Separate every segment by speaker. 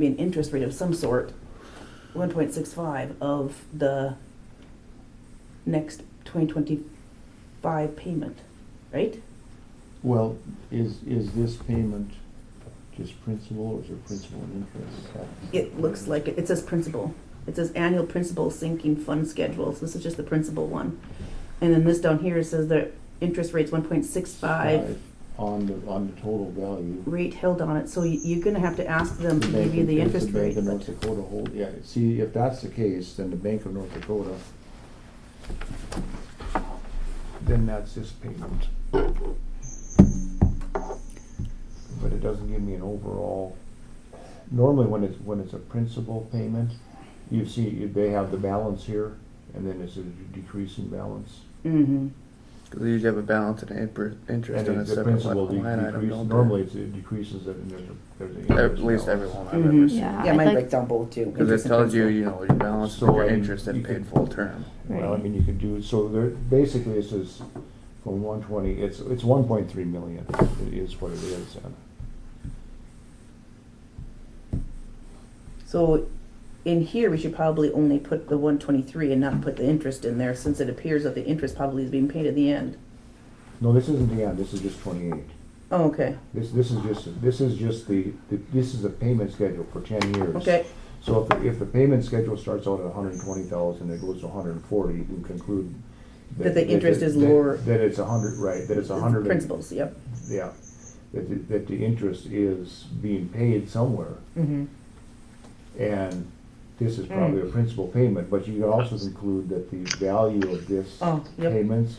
Speaker 1: be an interest rate of some sort, one point six five of the next twenty twenty-five payment, right?
Speaker 2: Well, is, is this payment just principal or is there principal and interest?
Speaker 1: It looks like, it It says principal. It says annual principal sinking fund schedule, so this is just the principal one. And then this down here says the interest rate's one point six five,
Speaker 2: On the, on the total value.
Speaker 1: rate held on it, so y- you're gonna have to ask them to
Speaker 2: The Bank
Speaker 1: give you
Speaker 2: of-
Speaker 1: the
Speaker 2: does
Speaker 1: interest rate.
Speaker 2: Bank of North
Speaker 1: but-
Speaker 2: Dakota hold, yeah, see, if that's the case, then the Bank of North Dakota,
Speaker 3: then that's this payment. But it doesn't give me an overall,
Speaker 2: normally when it's, when it's a principal payment, you see, they have the balance here and then it's a decreasing balance.
Speaker 1: Mhm.
Speaker 4: Because they usually have a balance and an inter-
Speaker 2: And
Speaker 4: interest on a
Speaker 2: it- the
Speaker 4: separate
Speaker 2: principal
Speaker 4: line item,
Speaker 2: decreases,
Speaker 4: don't they?
Speaker 2: normally it's- it decreases it and there's a, there's an
Speaker 4: At
Speaker 2: interest
Speaker 4: least
Speaker 2: balance.
Speaker 4: every one I've
Speaker 2: Mm-hmm.
Speaker 4: ever
Speaker 1: Mhm.
Speaker 4: seen.
Speaker 5: Yeah,
Speaker 1: Yeah,
Speaker 5: I'd
Speaker 1: mine
Speaker 5: like-
Speaker 1: breaks down both too.
Speaker 4: Because
Speaker 1: interest
Speaker 4: it
Speaker 1: and
Speaker 4: tells you,
Speaker 1: principal.
Speaker 4: you know, your balance,
Speaker 2: So,
Speaker 4: your
Speaker 2: I mean,
Speaker 4: interest
Speaker 2: you
Speaker 4: and paid
Speaker 2: could-
Speaker 4: full term.
Speaker 2: Well, I
Speaker 5: Right.
Speaker 2: mean, you could do, so there, basically, this is from one twenty, it's, it's one point three million, it is what it is. and
Speaker 1: So in here, we should probably only put the one twenty-three and not put the interest in there, since it appears that the interest probably is being paid at the end.
Speaker 2: No, this isn't the end, this is just twenty-eight.
Speaker 1: Oh, okay,
Speaker 2: This, this is just, this is just the, the- this is the payment schedule for ten years.
Speaker 1: okay,
Speaker 2: So if, the- if the payment schedule starts out at hundred and twenty thousand, it goes to hundred and forty, you can conclude.
Speaker 1: That the interest is
Speaker 2: that-
Speaker 1: lower.
Speaker 2: That it's a hundred, right, that it's a hundred. and-
Speaker 1: principals, yep.
Speaker 2: Yeah, that, the- that the interest is being paid somewhere.
Speaker 1: Mm-hmm.
Speaker 2: And this
Speaker 1: Hmm.
Speaker 2: is probably a principal payment, but you can also conclude that the value of this
Speaker 1: Oh, yep.
Speaker 2: payments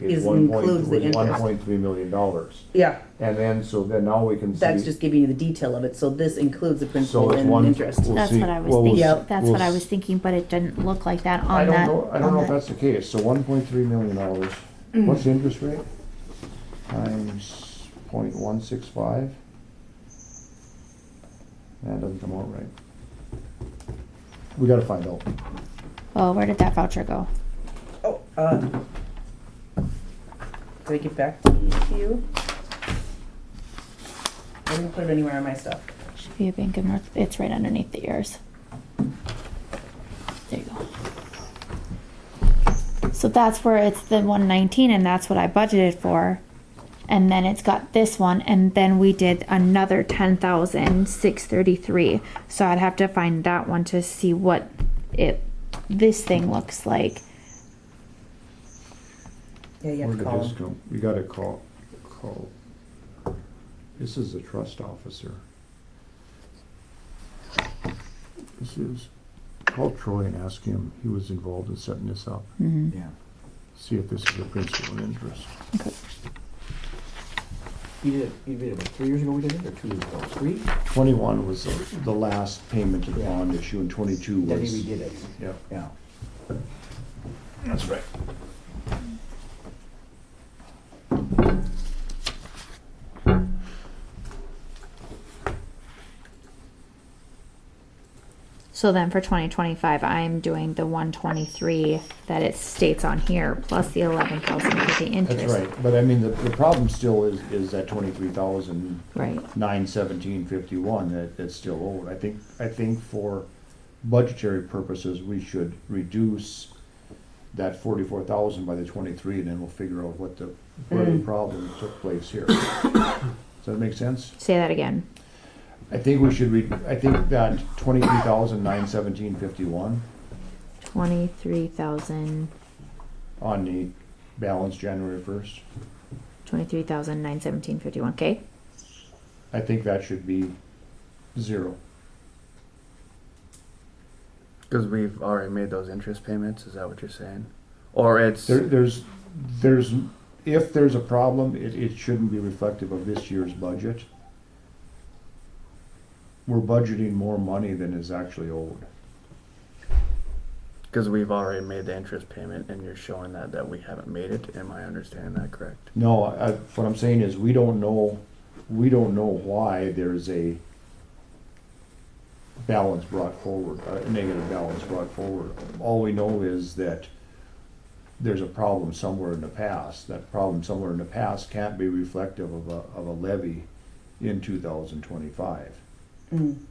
Speaker 1: Is-
Speaker 2: is one point,
Speaker 1: includes the
Speaker 2: was
Speaker 1: interest.
Speaker 2: one point three million dollars.
Speaker 1: Yeah,
Speaker 2: And then, so then now we can see.
Speaker 1: that's just giving you the detail of it, so this includes the principal
Speaker 2: it's
Speaker 1: and
Speaker 2: one-
Speaker 1: interest.
Speaker 2: we'll
Speaker 5: That's
Speaker 2: see.
Speaker 5: what I was
Speaker 2: Well, we'll
Speaker 5: thinking,
Speaker 1: Yep.
Speaker 5: that's
Speaker 2: we'll
Speaker 5: what I
Speaker 2: s-
Speaker 5: was thinking, but it didn't look like that
Speaker 2: I
Speaker 5: on
Speaker 2: don't
Speaker 5: that.
Speaker 2: know, I don't
Speaker 5: on
Speaker 2: know if
Speaker 5: that.
Speaker 2: that's the case, so one point three million dollars,
Speaker 1: Hmm.
Speaker 2: what's the interest rate? Times point one six five? That doesn't come out right. We gotta find out.
Speaker 5: Oh, where did that voucher go?
Speaker 1: Oh, uh, did I get back to you? I didn't put it anywhere on my stuff.
Speaker 5: Should be a bank of North, it's right underneath the ears. There you go. So that's where it's the one nineteen and that's what I budgeted for. And then it's got this one and then we did another ten thousand six thirty-three. So I'd have to find that one to see what it, this thing looks like.
Speaker 1: Yeah, you have
Speaker 2: Where
Speaker 1: to
Speaker 2: did
Speaker 1: call
Speaker 2: this
Speaker 1: them.
Speaker 2: go? You gotta call, call. This is the trust officer. This is, call Troy and ask him, he was involved in setting this up,
Speaker 5: Mhm.
Speaker 3: yeah,
Speaker 2: see if this is a principal and interest.
Speaker 5: Okay.
Speaker 3: you did, it- you did it about three years ago we did it, or two years ago, three?
Speaker 2: Twenty-one was the- the last payment of the
Speaker 3: Yeah.
Speaker 2: bond issue, and twenty-two
Speaker 3: Then
Speaker 2: was.
Speaker 3: we did it,
Speaker 2: Yeah,
Speaker 3: yeah.
Speaker 2: that's right.
Speaker 5: So then for twenty twenty-five, I'm doing the one twenty-three that it states on here, plus the eleven thousand for the interest.
Speaker 2: That's right, but I mean, the, the problem still is, is that twenty-three thousand
Speaker 5: Right.
Speaker 2: nine seventeen fifty-one that, that's still owed. I think, I think for budgetary purposes, we should reduce that forty-four thousand by the twenty-three, and then we'll figure out what the, where the problem took place here. Does that make sense?
Speaker 5: Say that again.
Speaker 2: I think we should re, I think that twenty-three thousand nine seventeen fifty-one
Speaker 5: Twenty-three thousand,
Speaker 2: on the balance January first,
Speaker 5: twenty-three thousand nine seventeen fifty-one. Okay.
Speaker 2: I think that should be zero.
Speaker 4: Because we've already made those interest payments, is that what you're saying? Or it's,
Speaker 2: There, there's, there's, if there's a problem, it, it shouldn't be reflective of this year's budget. We're budgeting more money than is actually owed.
Speaker 4: because we've already made the interest payment and you're showing that, that we haven't made it, am I understanding that correct?
Speaker 2: No, I, what I'm saying is, we don't know, we don't know why there's a balance brought forward, a negative balance brought forward. All we know is that there's a problem somewhere in the past. That problem somewhere in the past can't be reflective of a, of a levy in two thousand twenty-five.
Speaker 1: Mm.